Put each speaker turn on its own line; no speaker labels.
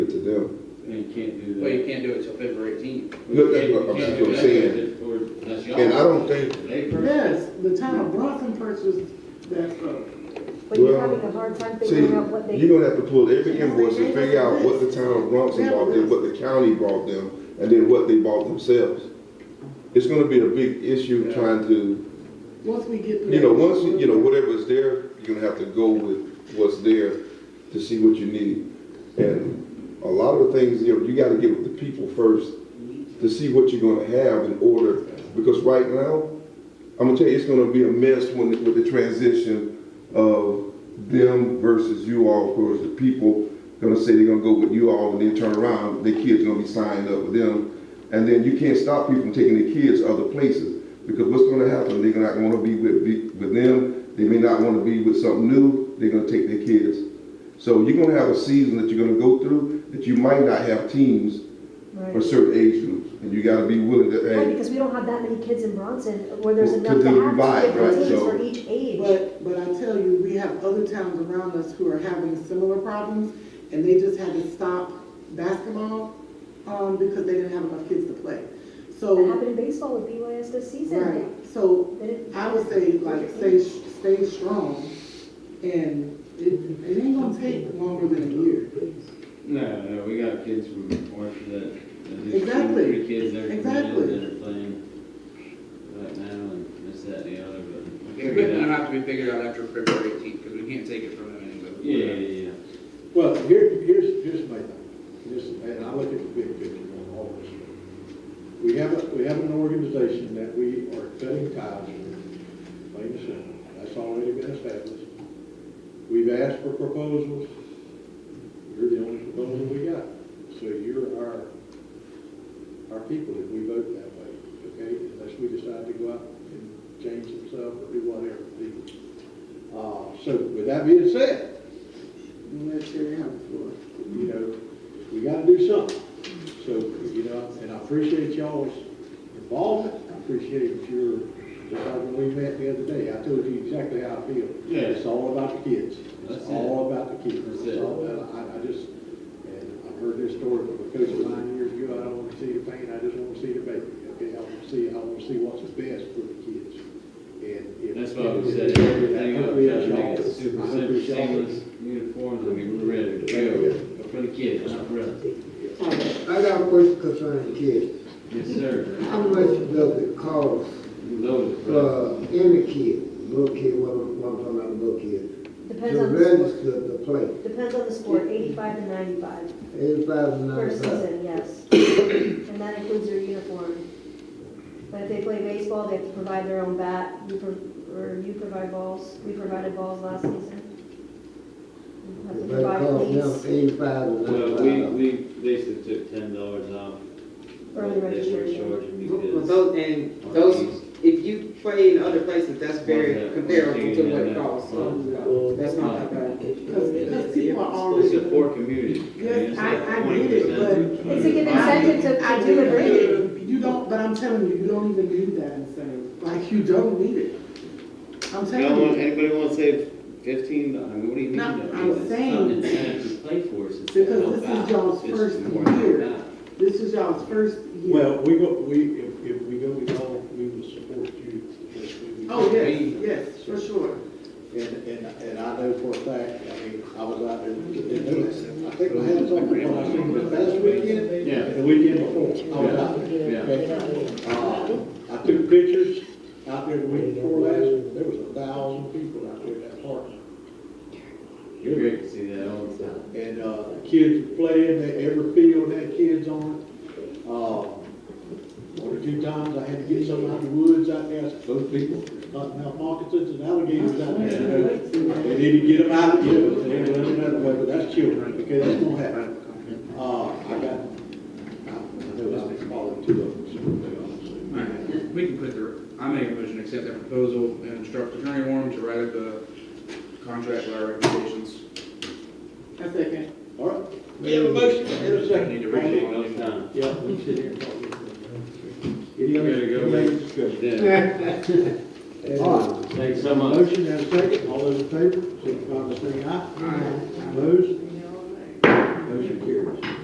do.
You can't do that.
Well, you can't do it till February eighteenth.
Look, that's what I'm-
You
that's
can't
what
do
I'm
that
saying.
for- that's y'all.
And I don't think,
They per-
Yes, the town of Bronson purchased that uh, road.
But you're
Well,
having a hard time
see,
figuring out what they.
you're gonna have to pull every invoice and figure out what the town of Bronson bought them, what the county bought them, and then what they bought themselves. It's gonna be a big issue trying to,
Once we get.
you know, once, you you know, whatever's there, you're gonna have to go with what's there to see what you need. And a lot of the things, you know, you gotta get with the people first to see what you're gonna have in order, because right now, I'm gonna tell you, it's gonna be a mess when, with the transition of them versus you all, of course, the people gonna say they're gonna go with you all, and then turn around, their kids gonna be signed up with them, and then you can't stop people from taking their kids to other places, because what's gonna happen, they're not gonna be with, be with them, they may not wanna be with something new, they're gonna take their kids. So you're gonna have a season that you're gonna go through, that you might not have teams
Right.
for certain age groups, and you gotta be willing to,
Right,
hey,
because we don't have that many kids in Bronson where there's
To
enough to
do
have
divide,
two
right,
different teams
so-
for each age.
But, but I tell you, we have other towns around us who are having similar problems, and they just had to stop basketball, um, because they didn't have enough kids to play.
That
So,
happened in baseball with BYS
right,
this season.
so
They didn't-
I would say, like, stay, stay strong, and it, it ain't gonna take longer than a year.
No, no, we got kids from Orchard that, that just
Exactly.
three kids that are
Exactly.
committed that are playing right now and this, that, and the other, but.
The equipment will have to be figured out after February eighteenth, because we can't take it from them anyway.
Yeah, yeah, yeah.
Well, here, here's, here's my thing, this, and I look at the big picture on all this. We have, a we have an organization that we are cutting ties with, plain and simple, that's already been established. We've asked for proposals, you're the only proposal we got, so you're our, our people if we vote that way, okay? Unless we decide to go out and change themselves or do whatever. Uh, so with that being said,
Let Sherry have the floor.
you know, we gotta do something. So, you know, and I appreciate y'all's involvement, I appreciate your, just like when we met the other day, I told you exactly how I feel.
Yeah.
It's all about the kids,
That's
it's
it.
all about the kids.
That's
It's
it.
all about, I, I just, and I've heard this story from a coach of mine years ago, I don't wanna see the pain, I just wanna see the baby, okay? I wanna see, I wanna see what's best for the kids. And if.
That's why we
if-
set
if-
everything up,
I
try
appreciate
to make it
y'all.
super
I
simple,
appreciate y'all.
seamless uniforms, I mean, we're ready to go for the kids, not for us.
I got a question concerning kids.
Yes, sir.
How much does it cost
Loaded, bro.
for any kid, little kid, what I'm, what I'm talking about, little kid,
Depends
to
on the sport,
register to play,
depends on the sport, eighty-five to ninety-five
eighty-five and
per
ninety-five?
season, yes. And that includes their uniform. But if they play baseball, they have to provide their own bat, you, pro- or you provide balls, we provided balls last season. You Have to
That
provide
costs
cleats,
them eighty-five and
Well, we,
ninety-five.
we basically took ten dollars off.
early
what They were
registration.
charging
Well,
because.
Those, and those, if you play in other places, that's very comparable to what it costs, so, that's not that bad.
Because, because people are
It's a
already.
poor community.
Yes,
mean, it's
I-
like
I get it,
20%.
It's a good incentive to,
I
to do a
get
grade.
it. You don't, but I'm telling you, you don't even need that incentive, like, you don't need it. I'm
No one,
telling you,
anybody wanna save fifteen, I mean, what do you mean?
No,
though?
I'm
It's
saying-
something incentive to play for, it's.
Because this is y'all's first year. this is y'all's first year.
Well, we go, we, if, if we go with y'all, we will support you. Yes, we will.
Oh, yes, yes, for sure.
And, and, and I know for a fact, I mean, I was out there, and noticed it. I think my hands on when I seen the last weekend.
Yeah.
And the weekend before,
Oh,
I was out there.
Yeah.
okay? Uh, I took pictures out there the week before last, there was a thousand people out there at that park.
You're great to see that all the time.
And, uh, kids were playing, they, every field had kids on it. Uh, one or two times I had to get something out of the woods out there, those people, cottonmouth moccasins and alligators out there. you know. They need to get them out, you know, and they run another way, but that's children, okay, that's gonna happen. Uh, I got, I I know I've been calling two of them, so they all.
Alright, we can put the, I make a motion to accept that proposal and instruct Attorney Warren to write up the contract with our recommendations.
A second.
uh, All right, we have a motion, and a second.
I need to read it all the time.
Yeah, we sit here and talk. Any other,
Better go.
any other discussion?
Yeah.
All right.
Thanks so much.
Motion and a second, all those in favor, signify by saying aye. Aye. Opposed,